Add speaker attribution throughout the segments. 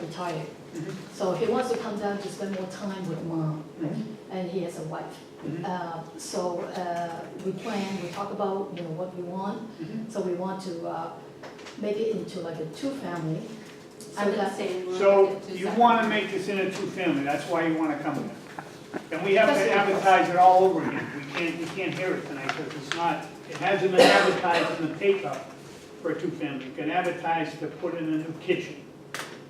Speaker 1: retired.
Speaker 2: Mhm.
Speaker 1: So he wants to come down to spend more time with mom,
Speaker 2: Mhm.
Speaker 1: and he has a wife.
Speaker 2: Mhm.
Speaker 1: Uh, So uh, we plan, we talk about, you know, what we want.
Speaker 2: Mhm.
Speaker 1: So we want to uh, make it into like a two-family.
Speaker 3: I
Speaker 1: So
Speaker 3: would
Speaker 1: that-
Speaker 3: say we're.
Speaker 2: So
Speaker 3: at two
Speaker 2: you
Speaker 3: separate.
Speaker 2: want to make this in a two-family, that's why you want to come here. And we have
Speaker 1: Because
Speaker 2: to
Speaker 1: it-
Speaker 2: advertise it all over again. We can't, we can't hear it tonight because it's not, it hasn't been advertised in the paper for a two-family. You can advertise to put in a new kitchen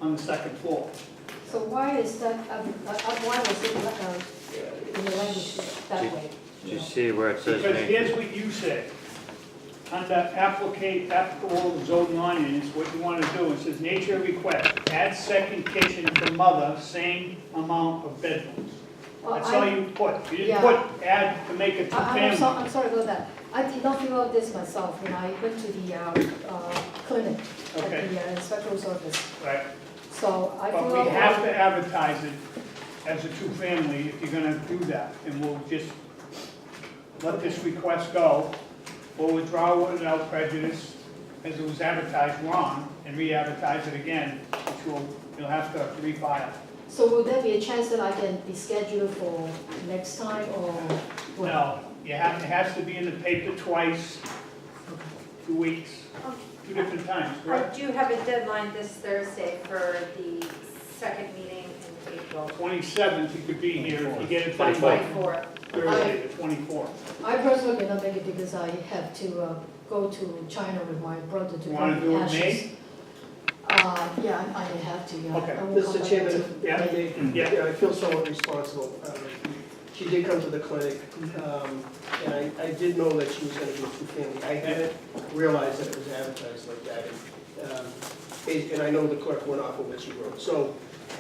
Speaker 2: on the second floor.
Speaker 1: So why is that, uh, uh, why was it like a, in the language that way?
Speaker 4: Did you see where it says
Speaker 2: Because here's
Speaker 4: nature?
Speaker 2: what you said, under applicate, applicable zoning ordinance, what you want to do, it says nature request, add second kitchen for mother, same amount of bedrooms.
Speaker 1: Well,
Speaker 2: That's
Speaker 1: I-
Speaker 2: all you put, you didn't
Speaker 1: Yeah.
Speaker 2: put add to make it two
Speaker 1: I- I'm so-
Speaker 2: family.
Speaker 1: I'm sorry about that. I did not figure out this myself when I went to the uh, uh, clinic at
Speaker 2: Okay.
Speaker 1: the uh, inspector's office.
Speaker 2: Right,
Speaker 1: So I
Speaker 2: but
Speaker 1: figured
Speaker 2: we have
Speaker 1: out,
Speaker 2: to advertise it as a two-family if you're gonna do that, and we'll just let this request go, we'll withdraw without prejudice, as it was advertised wrong, and re-advertise it again, which will, you'll have to refile.
Speaker 1: so will there be a chance that I can be scheduled for next time or what?
Speaker 2: No, you have, it has to be in the paper twice, two weeks, two different times,
Speaker 5: Um, I
Speaker 2: correct?
Speaker 5: do have a deadline this Thursday for the second meeting in April,
Speaker 2: Twenty-seventh, you could be here if you get it by
Speaker 4: Twenty-fourth.
Speaker 5: twenty-fourth.
Speaker 2: Thursday, the twenty-fourth.
Speaker 1: I personally cannot make it because I have to uh, go to China with my brother to
Speaker 2: You wanna
Speaker 1: burn
Speaker 2: do
Speaker 1: the
Speaker 2: it in May?
Speaker 1: ashes. Uh, yeah, I I have to, yeah.
Speaker 2: Okay.
Speaker 1: I will come
Speaker 6: Mr.
Speaker 1: back
Speaker 6: Chairman,
Speaker 1: to-
Speaker 6: if I may,
Speaker 2: Yeah.
Speaker 6: yeah, I feel somewhat responsible. Um, She did come to the clinic, um, and I, I did know that she was gonna be a two-family. I hadn't realized that it was advertised like that. and, um, And and I know the clerk went off of what she wrote. So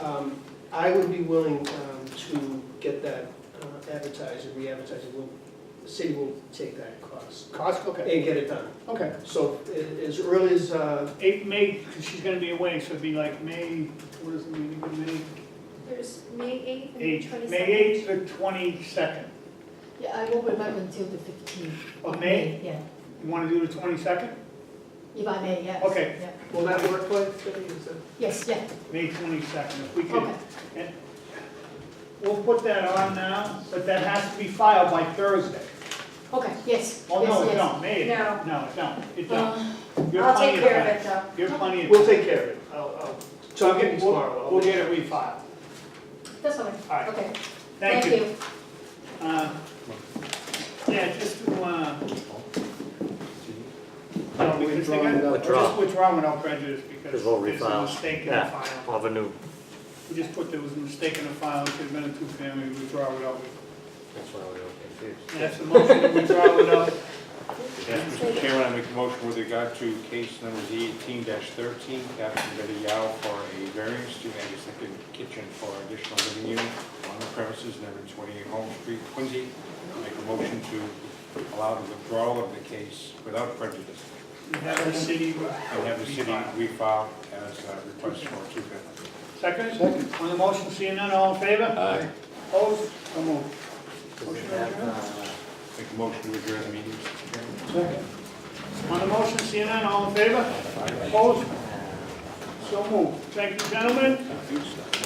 Speaker 6: um, I would be willing um, to get that uh, advertised and re-advertised. We'll- The city will take that cost
Speaker 2: Cost, okay,
Speaker 6: and get it done.
Speaker 2: okay.
Speaker 6: So a- as early as, uh,
Speaker 2: Eight, May, 'cause she's gonna be away, so it'd be like May, what is it, May,
Speaker 5: There's May eighth
Speaker 2: May
Speaker 5: and
Speaker 2: eighth,
Speaker 5: twenty-second.
Speaker 2: May eighth to twenty-second.
Speaker 1: Yeah, I won't be back until the fifteenth.
Speaker 2: Of May,
Speaker 1: Yeah,
Speaker 2: you wanna do the twenty-second?
Speaker 1: if I may, yes.
Speaker 2: Okay.
Speaker 1: Yeah.
Speaker 6: will that work, Clay? Is that-
Speaker 1: Yes, yeah,
Speaker 2: May twenty-second, if we
Speaker 1: okay.
Speaker 2: could. We'll put that on now, but that has to be filed by Thursday.
Speaker 1: Okay, yes, yes, yes.
Speaker 2: Oh, no, it don't, May, it
Speaker 5: No. Uh-huh.
Speaker 2: don't. no, it don't, it don't.
Speaker 1: Uh,
Speaker 2: You're
Speaker 5: I'll
Speaker 2: plenty
Speaker 5: take
Speaker 2: of
Speaker 5: care of
Speaker 2: time.
Speaker 5: it though.
Speaker 2: You're plenty of
Speaker 6: We'll
Speaker 2: time.
Speaker 6: take care of it. I'll, I'll
Speaker 2: So
Speaker 6: talk to you tomorrow. I'll
Speaker 2: We'll
Speaker 6: make
Speaker 2: get it refiled.
Speaker 1: That's all
Speaker 2: All right.
Speaker 1: right, okay.
Speaker 2: Thank you. Uh, Yeah, just to, uh, no, because they got-
Speaker 4: without-
Speaker 2: just withdraw without prejudice because
Speaker 4: Because we'll
Speaker 2: there's a
Speaker 4: refile.
Speaker 2: mistake in the
Speaker 4: Yeah,
Speaker 2: file.
Speaker 4: we'll have a new,
Speaker 2: We just put there was a mistake in the file, it should have been a two-family, withdraw without,
Speaker 4: that's why we were confused.
Speaker 2: that's the motion, to withdraw without,
Speaker 7: Yes, Mr. Chairman, I make a motion with regard to case number eighteen thirteen, Captain Betty Yao for a variance to add a second kitchen for additional living unit on the premises number twenty-eight Home Street, Quincy. I Make a motion to allow the withdrawal of the case without prejudice
Speaker 2: we have the city.
Speaker 7: and have the city refile as a request for a two-family.
Speaker 2: Second? Second. On the motion, seeing none, all in favor? Aye. Opposed? So moved.
Speaker 4: Does it have, uh,
Speaker 7: Make a motion to adjourn the meeting, Mr. Chairman.
Speaker 2: On the motion, seeing none, all in favor? Opposed? So moved. Thank you, gentlemen.